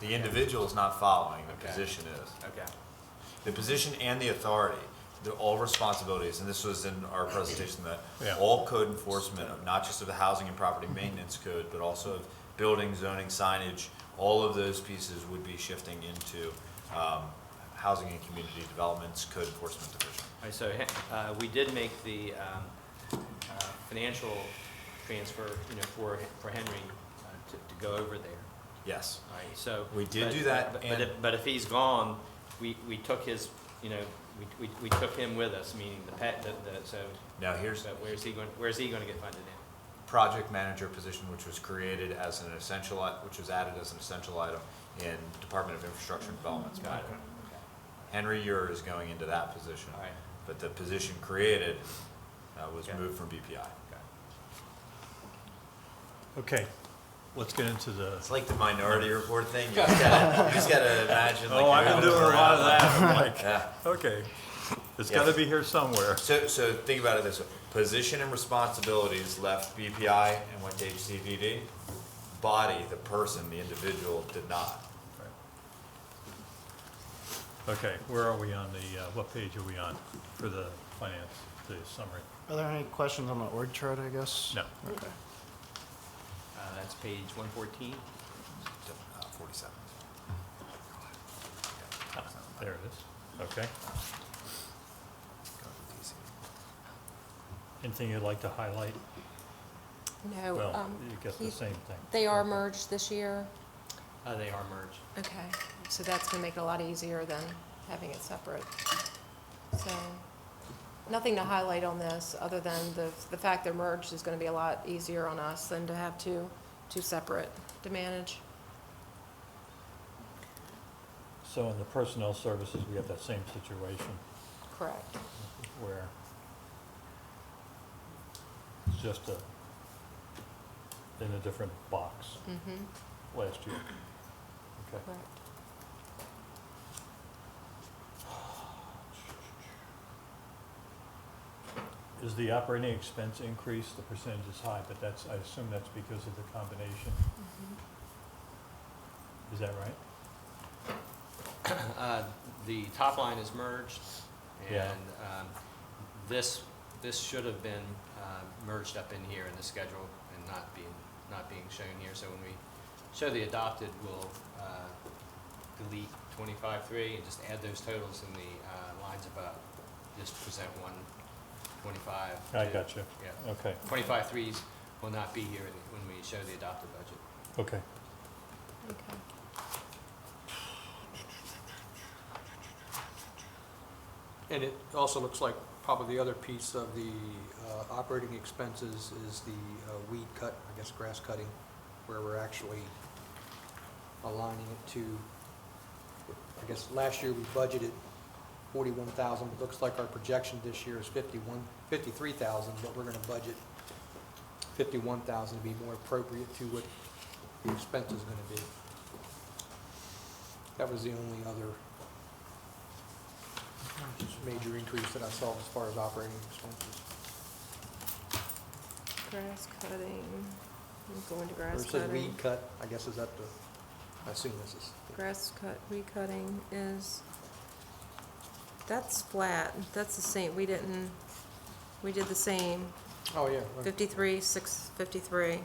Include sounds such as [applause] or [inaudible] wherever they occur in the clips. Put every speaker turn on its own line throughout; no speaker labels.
The individual is not following, the
Okay.
position is.
Okay.
The position and the authority, they're all responsibilities, and this was in our presentation, that
Yeah.
all code enforcement of not just of the housing and property maintenance code, but also of building, zoning, signage, all of those pieces would be shifting into um, Housing and Community Development's Code Enforcement Division.
All right, so uh, we did make the um, uh, financial transfer, you know, for, for Henry uh, to, to go over there.
Yes.
All right, so.
We did
but-
do that,
but- But
and-
if, but if he's gone, we, we took his, you know, we, we, we took him with us, meaning the pet, the, the, so,
Now, here's,
so where's he going, where's he gonna get funded in?
project manager position, which was created as an essential, i- which was added as an essential item in Department of Infrastructure and Development's
Got it.
manual. Henry Ure is going into that position.
All right.
But the position created uh, was
Okay.
moved from BPI.
Okay.
Okay, let's get into the,
It's like the minority report thing. You just
[laughs]
gotta, you just gotta imagine like.
oh, I've been
you're
doing a lot of
around.
that, I'm
[laughs]
like,
Yeah.
okay. It's
Yeah.
gotta be here somewhere.
So, so think about it this way. Position and responsibilities left BPI and went to HCDD. Body, the person, the individual, did not.
Okay, where are we on the, uh, what page are we on for the finance, the summary?
Are there any questions on the org chart, I guess?
No.
Okay.
Uh, That's page one fourteen.
Uh, Forty-seven.
There it is, okay.
Go to DC.
Anything you'd like to highlight?
No,
Well,
um,
you get the
he-
same thing.
they are merged this year.
Uh, they are merged.
Okay, so that's gonna make it a lot easier than having it separate. So, nothing to highlight on this, other than the, the fact they're merged is gonna be a lot easier on us than to have two, two separate to manage.
So in the personnel services, we have that same situation
Correct.
where it's just a, in a different box
Mm-hmm,
last year. Okay.
correct.
Is the operating expense increase, the percentage is high, but that's, I assume that's because of the combination, is that right?
Uh, The top line is merged,
Yeah.
and um, this, this should have been um, merged up in here in the schedule and not being, not being shown here. So when we show the adopted, we'll uh, delete twenty-five-three and just add those totals in the uh, lines above. Just present one twenty-five.
I got you,
Yeah.
okay,
Twenty-five-threes will not be here in- when we show the adopted budget.
okay.
Okay.
And it also looks like probably the other piece of the uh, operating expenses is the uh, weed cut, I guess grass cutting, where we're actually aligning it to, I guess last year we budgeted forty-one thousand, it looks like our projection this year is fifty-one, fifty-three thousand, but we're gonna budget fifty-one thousand to be more appropriate to what the expense is gonna be. That was the only other major increase that I saw as far as operating expenses.
Grass cutting, I'm going to
Or
grass
it says
cutting.
weed cut, I guess is up to, I assume this is.
Grass cut, recutting is, that's flat, that's the same, we didn't, we did the same,
Oh, yeah. right.
fifty-three, six, fifty-three.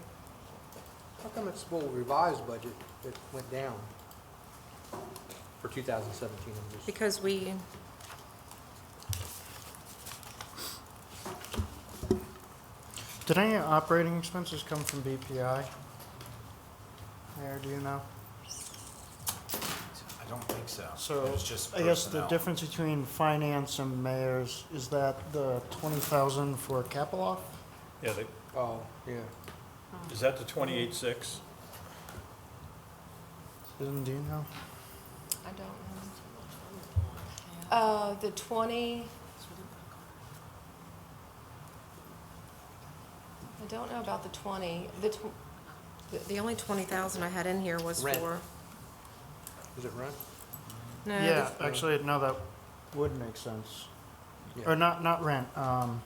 How come it's, well, revised budget, it went down for 2017? I'm just-
Because we,
Did any operating expenses come from BPI? Mayor, do you know?
I don't think so.
So,
It's just
I guess the
personnel.
difference between finance and mayor's is that the twenty thousand for Kaploff?
Yeah, the-
Oh, yeah.
is that the twenty-eight six?
Susan, do you know?
I don't know. Uh, the twenty. I don't know about the twenty, the tw- the, the only twenty thousand I had in here was
Rent.
for.
Is it rent?
No, the-
Yeah, actually, no, that would make sense.
Yeah.
Or not, not rent, um,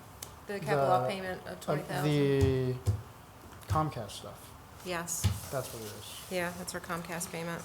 The capital
the-
payment of
uh,
twenty thousand.
the Comcast stuff.
Yes,
That's what it is.
yeah, that's our Comcast payment.